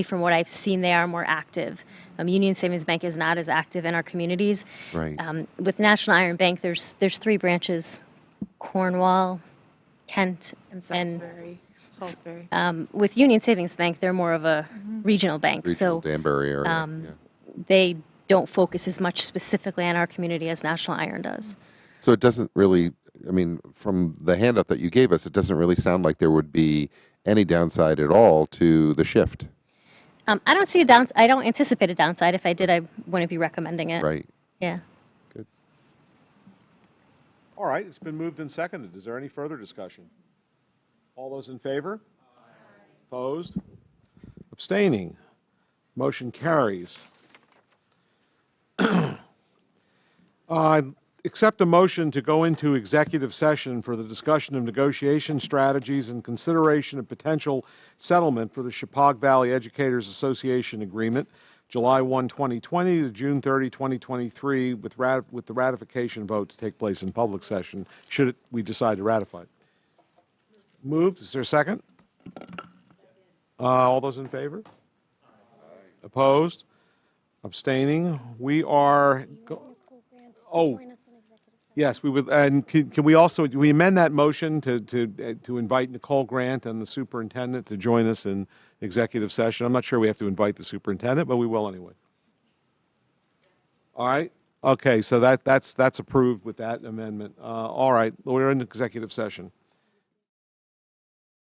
From what I've seen, they are more active. Um, Union Savings Bank is not as active in our communities. Right. Um, with National Iron Bank, there's there's three branches: Cornwall, Kent, And and Salisbury. Salisbury. um, with Union Savings Bank, they're more of a regional bank. Regional so um, Danbury area. yeah. they don't focus as much specifically on our community as National Iron does. So it doesn't really, I mean, from the handout that you gave us, it doesn't really sound like there would be any downside at all to the shift, Um, I don't see a down. I don't anticipate a downside. If I did, I wouldn't be recommending it. right? Yeah. Good. All right, it's been moved and seconded. Is there any further discussion? All those in favor? Opposed? Abstaining? Motion carries. Uh, Accept a motion to go into executive session for the discussion of negotiation strategies and consideration of potential settlement for the Chippewa Valley Educators Association Agreement, July 1, 2020 to June 30, 2023, with rat- with the ratification vote to take place in public session, should it- we decide to ratify. it. Moved, is there a second? Uh, All those in favor? Opposed? Abstaining? We are, go- oh, Yes, we would, and can, can we also, do we amend that motion to, to, uh, to invite Nicole Grant and the superintendent to join us in executive session? I'm not sure we have to invite the superintendent, but we will anyway. All right, okay, so that, that's, that's approved with that amendment. Uh, all right, we're in executive session.